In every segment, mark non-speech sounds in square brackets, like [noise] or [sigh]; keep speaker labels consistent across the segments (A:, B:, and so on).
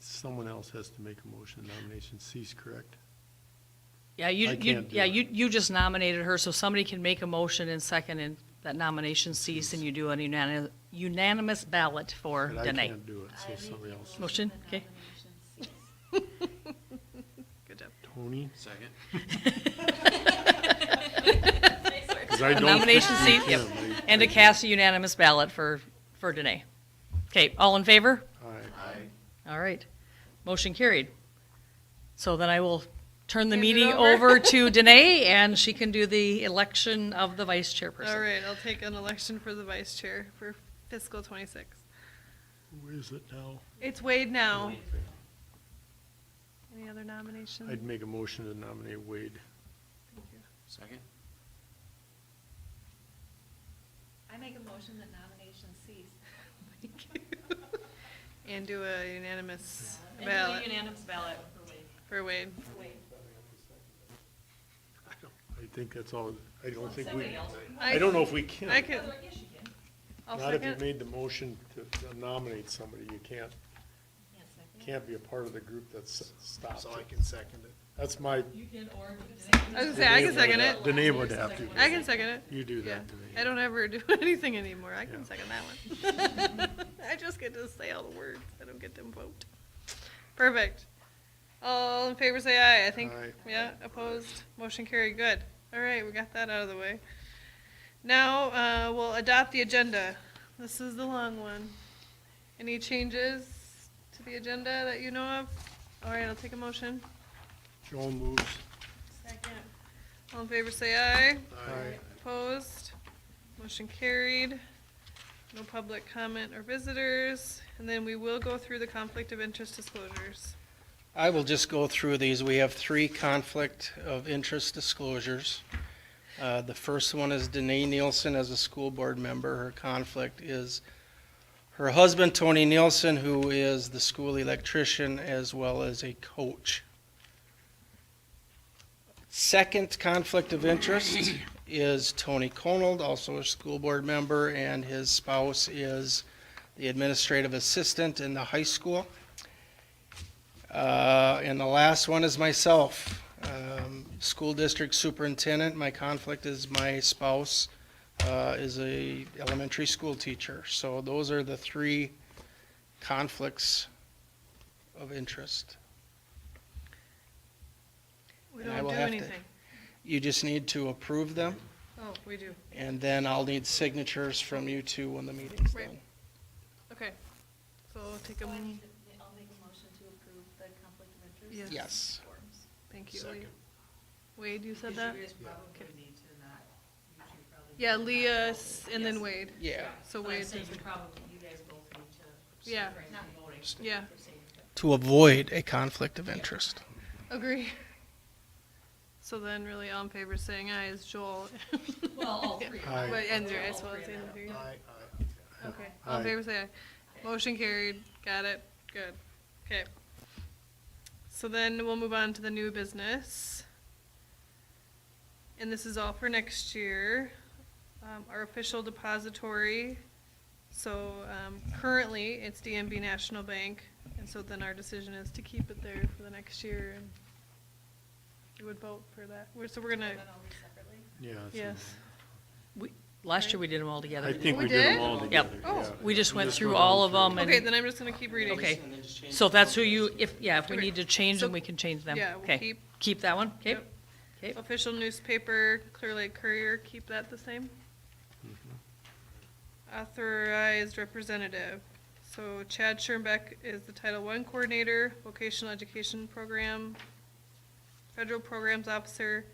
A: someone else has to make a motion, nomination cease, correct?
B: Yeah, you,
A: I
B: you,
A: can't do
B: yeah,
A: it.
B: you, you just nominated her, so somebody can make a motion and second and that nomination cease and you do a unanimous, unanimous ballot for
A: But I
B: Dene.
A: can't do it, so somebody else.
B: Motion, okay. Good job.
A: Tony?
C: Second.
A: Because I don't think
B: Nomination
A: we
B: cease, yep.
A: can. I-
B: And to cast a unanimous ballot for, for Dene. Okay, all in favor?
A: I-
C: Aye.
B: All right. Motion carried. So then I will turn the
D: Hand it
B: meeting
D: over. [laughs]
B: over to Dene and she can do the election of the vice
D: All
B: chairperson.
D: right, I'll take an election for the vice chair for fiscal twenty-six.
A: Where is it now?
D: It's Wade now. Any other nominations?
A: I'd make a motion to nominate Wade.
D: Thank you.
C: Second?
E: I make a motion that nomination cease.
D: [laughs] And do a unanimous ballot
B: Unanimous ballot.
D: for Wade.
A: I don't- I think that's all, I don't think we,
D: I-
A: I don't know if we can.
D: I can, I'll
A: Not if you
D: second.
A: made the motion to nominate somebody, you can't, can't be a part of the group that's stopped.
C: So I can second it.
A: That's my.
D: I was gonna say, I can second it.
A: Danae would have to.
D: I can second it.
A: You do
D: Yeah,
A: that, Danae.
D: I don't ever [laughs] do anything anymore. I
A: Yeah.
D: can second that one.
A: [laughs]
D: [laughs] I just get to say all the words. I don't get to vote. Perfect. All in favor, say aye. I think,
A: Aye.
D: yeah, opposed, motion carried. Good. All right, we got that out of the way. Now, uh, we'll adopt the agenda. This is the long one. Any changes to the agenda that you know of? All right, I'll take a motion.
A: Joel moves.
D: Second. All in favor, say aye.
A: Aye.
D: Opposed? Motion carried. No public comment or visitors. And then we will go through the conflict of interest disclosures.
F: I will just go through these. We have three conflict of interest disclosures. Uh, The first one is Danae Nielsen as a school board member. Her conflict is her husband, Tony Nielsen, who is the school electrician as well as a coach. Second conflict of interest is Tony Conold, also a school board member, and his spouse is the administrative assistant in the high school. Uh, And the last one is myself, um, school district superintendent. My conflict is my spouse uh, is a elementary school teacher. So those are the three conflicts of interest.
D: We
F: And I
D: don't
F: will
D: do
F: have to-
D: anything.
F: You just need to approve them,
D: Oh, we do.
F: and then I'll need signatures from you two when the meeting's
D: Right.
F: done.
D: Okay. So I'll take
E: So
D: a,
E: I
D: m-
E: need to, I'll make a motion to approve the conflict of
D: Yes.
E: interest.
F: Yes.
E: forms.
D: thank you. Lee.
C: Second.
D: Wade, you said that?
G: probably need to not, you two probably.
D: Yeah, Leah s- and then Wade.
F: Yeah.
D: So
G: But I'm
D: Wade,
G: saying you probably, you guys both need to.
D: Yeah.
G: separate the voting.
D: yeah,
F: To avoid a conflict of interest.
D: agree. [laughs] So then really all in favor saying aye is Joel. [laughs]
G: Well, all three.
A: Aye.
D: But Andrew, I
G: All
D: suppose,
G: three of them.
D: Andrew.
C: Aye.
D: Okay, all in
A: Aye.
D: favor say aye. Motion carried, got it, good, okay. So then we'll move on to the new business. And this is all for next year, um, our official depository. So, um, currently, it's DMB National Bank, and so then our decision is to keep it there for the next year, and we would vote for that, We're- so we're gonna,
E: And then all these separately.
A: Yeah. it's in
D: yes.
B: Last year we did them all together.
A: I think
D: We
A: we did
D: did?
A: them all
B: Yep.
A: together.
D: Oh.
A: yeah.
B: We just went through
A: went
B: all
A: all
B: of them
D: Okay,
B: and,
D: then I'm just gonna keep reading.
B: okay. So that's who you, if, yeah, if we
D: Okay.
B: need to change them,
D: So-
B: we can change them.
D: Yeah, we'll
B: Okay.
D: keep-
B: Keep that one, okay?
D: Yep.
B: Okay,
D: Official newspaper, Clear Lake Courier, keep that the same. Authorized representative. So Chad Schirnbeck is the Title I Coordinator, Vocational Education Program, Federal Programs Officer,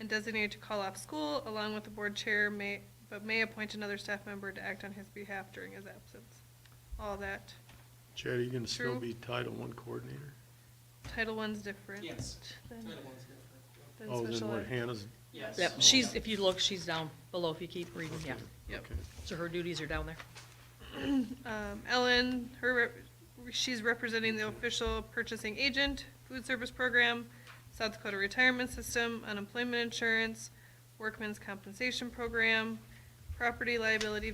D: and designated to call off school, along with the board chair, may, but may appoint another staff member to act on his behalf during his absence. All that.
A: Chad, are you gonna still
D: True.
A: be Title One coordinator?
D: Title I's different.
F: Yes.
D: than- than
A: Oh, then
D: special
A: what
D: ed.
A: Hannah's,
F: Yes.
B: yep, she's, if you look, she's down below if you keep reading, yeah.
D: Yep.
A: okay.
B: So her duties are down there.
D: Um, Ellen, her, rep- she's representing the official purchasing agent, food service program, South Dakota retirement system, unemployment insurance, workman's compensation program, property liability